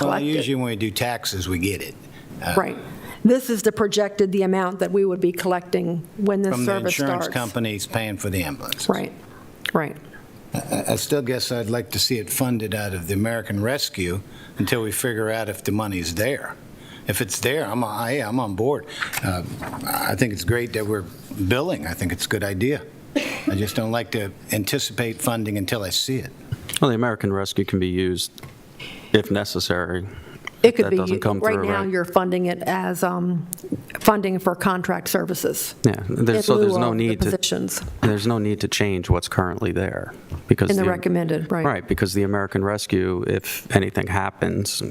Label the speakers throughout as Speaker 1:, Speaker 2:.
Speaker 1: Well,
Speaker 2: collect it.
Speaker 1: usually when we do taxes, we get it
Speaker 2: Right. This is the projected, the amount that we would be collecting when this
Speaker 1: from the
Speaker 2: service starts.
Speaker 1: insurance companies paying for the ambulance.
Speaker 2: Right, right.
Speaker 1: I I still guess I'd like to see it funded out of the American Rescue until we figure out if the money's there. If it's there, I'm, I am on board. Uh, I think it's great that we're billing. I think it's a good idea. I just don't like to anticipate funding until I see it.
Speaker 3: Well, the American Rescue can be used if necessary.
Speaker 2: It
Speaker 3: if
Speaker 2: could
Speaker 3: that
Speaker 2: be,
Speaker 3: doesn't come
Speaker 2: right
Speaker 3: through,
Speaker 2: now, you're funding it as um, funding for contract services.
Speaker 3: Yeah, there's-
Speaker 2: in
Speaker 3: so there's
Speaker 2: lieu
Speaker 3: no
Speaker 2: of the
Speaker 3: need to-
Speaker 2: positions
Speaker 3: There's no need to change what's currently there because.
Speaker 2: in the recommended, right.
Speaker 3: Right, because the American Rescue, if anything happens,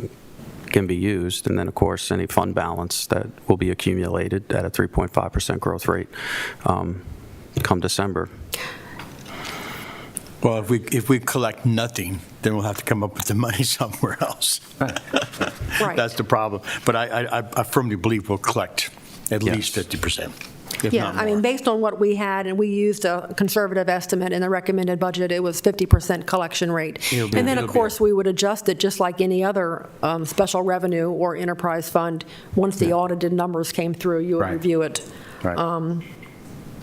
Speaker 3: can be used. And then, of course, any fund balance that will be accumulated at a 3.5% growth rate um, come December.
Speaker 4: Well, if we, if we collect nothing, then we'll have to come up with the money somewhere else.
Speaker 2: Right.
Speaker 4: That's the problem. But I, I- I firmly believe we'll collect at
Speaker 3: Yes.
Speaker 4: least 50%, if
Speaker 2: Yeah,
Speaker 4: not
Speaker 2: I mean,
Speaker 4: more.
Speaker 2: based on what we had, and we used a conservative estimate in the recommended budget, it was 50% collection rate.
Speaker 4: It'll be-
Speaker 2: And then,
Speaker 4: it'll
Speaker 2: of
Speaker 4: be-
Speaker 2: course, we would adjust it just like any other um, special revenue or enterprise fund. Once the audited numbers came through, you would
Speaker 4: Right.
Speaker 2: review it. Um,
Speaker 4: Right.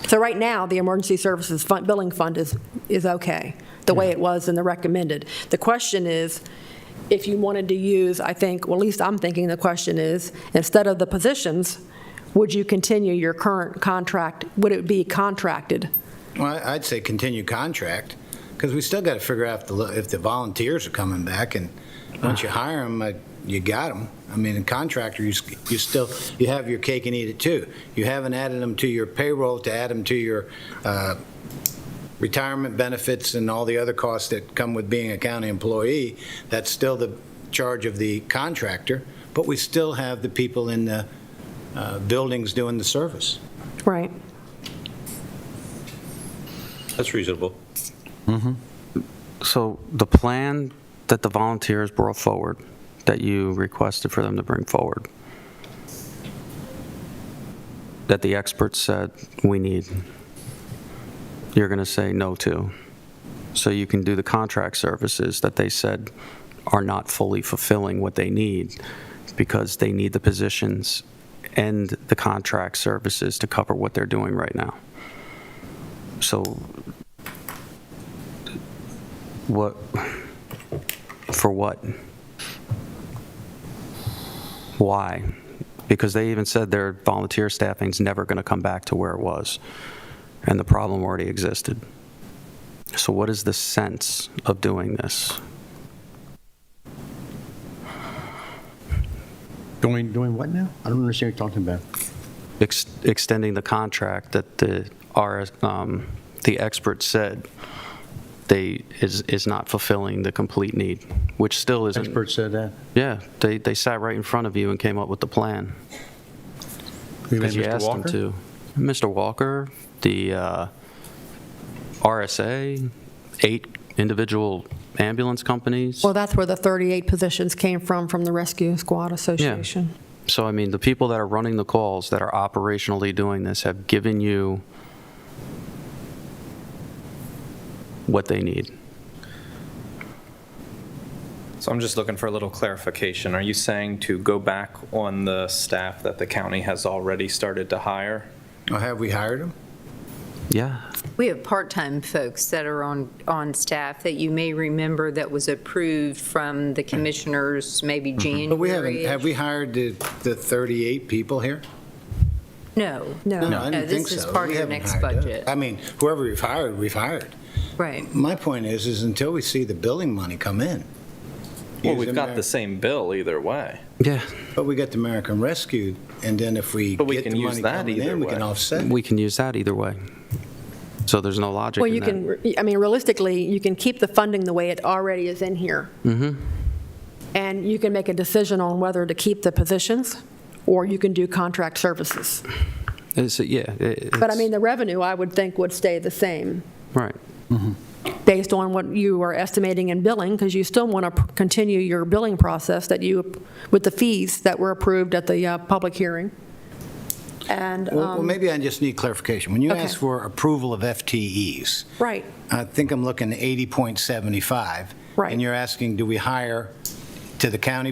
Speaker 2: So right now, the Emergency Services Fund, Billing Fund is, is okay, the way it was in the recommended. The question is, if you wanted to use, I think, well, at least I'm thinking the question is, instead of the positions, would you continue your current contract? Would it be contracted?
Speaker 1: Well, I- I'd say continue contract, because we still got to figure out if the, if the volunteers are coming back, and once you hire them, you got them. I mean, a contractor, you, s- you still, you have your cake and eat it too. You haven't added them to your payroll to add them to your uh, retirement benefits and all the other costs that come with being a county employee. That's still the charge of the contractor, but we still have the people in the uh, buildings doing the service.
Speaker 2: Right.
Speaker 5: That's reasonable.
Speaker 3: So the plan that the volunteers brought forward, that you requested for them to bring forward, that the experts said we need, you're going to say no to. So you can do the contract services that they said are not fully fulfilling what they need because they need the positions and the contract services to cover what they're doing right now. So what, for what? Why? Because they even said their volunteer staffing's never going to come back to where it was, and the problem already existed. So what is the sense of doing this?
Speaker 4: Doing, doing what now? I don't understand what you're talking about.
Speaker 3: Ex- Extending the contract that the, our, um, the experts said they, is, is not fulfilling the complete need, which still isn't.
Speaker 4: Expert said that.
Speaker 3: Yeah, they, they sat right in front of you and came up with the plan.
Speaker 4: You mean
Speaker 3: Because you
Speaker 4: Mr.
Speaker 3: asked them
Speaker 4: Walker?
Speaker 3: to. Mr. Walker, the uh, RSA, eight individual ambulance companies.
Speaker 2: Well, that's where the 38 positions came from, from the Rescue Squad Association.
Speaker 3: So, I mean, the people that are running the calls, that are operationally doing this, have given you what they need.
Speaker 5: So I'm just looking for a little clarification. Are you saying to go back on the staff that the county has already started to hire?
Speaker 1: Now, Have we hired them?
Speaker 3: Yeah,
Speaker 6: We have part-time folks that are on, on staff that you may remember that was approved from the commissioners maybe January.
Speaker 1: Mm-hmm. But we haven't, have we hired the, the 38 people here?
Speaker 6: No.
Speaker 2: No.
Speaker 1: I didn't think so.
Speaker 6: This is part
Speaker 1: We
Speaker 6: of the
Speaker 1: haven't
Speaker 6: next
Speaker 1: hired them.
Speaker 6: budget.
Speaker 1: I mean, whoever we've hired, we've hired.
Speaker 6: Right.
Speaker 1: My point is, is until we see the billing money come in.
Speaker 5: Well,
Speaker 1: use
Speaker 5: we've got
Speaker 1: Ameri-
Speaker 5: the same bill either way.
Speaker 3: yeah,
Speaker 1: But we got the American Rescue, and then if we
Speaker 5: But we
Speaker 1: get
Speaker 5: can
Speaker 1: the
Speaker 5: use
Speaker 1: money
Speaker 5: that
Speaker 1: coming
Speaker 5: either
Speaker 1: in, we
Speaker 5: way.
Speaker 1: can offset.
Speaker 3: we can use that either way. So there's no logic
Speaker 2: Well,
Speaker 3: in
Speaker 2: you
Speaker 3: that.
Speaker 2: can, I mean, realistically, you can keep the funding the way it already is in here. And you can make a decision on whether to keep the positions, or you can do contract services.
Speaker 3: It's- Yeah.
Speaker 2: But I mean, the revenue, I would think, would stay the same,
Speaker 3: Right.
Speaker 2: based on what you are estimating in billing, because you still want to continue your billing process that you, with the fees that were approved at the uh, public hearing. And,
Speaker 1: Well, well,
Speaker 2: um,
Speaker 1: maybe I just need clarification. When you
Speaker 2: Okay.
Speaker 1: ask for approval of FTEs,
Speaker 2: right,
Speaker 1: I think I'm looking at 80.75.
Speaker 2: Right.
Speaker 1: And you're asking, do we hire to the county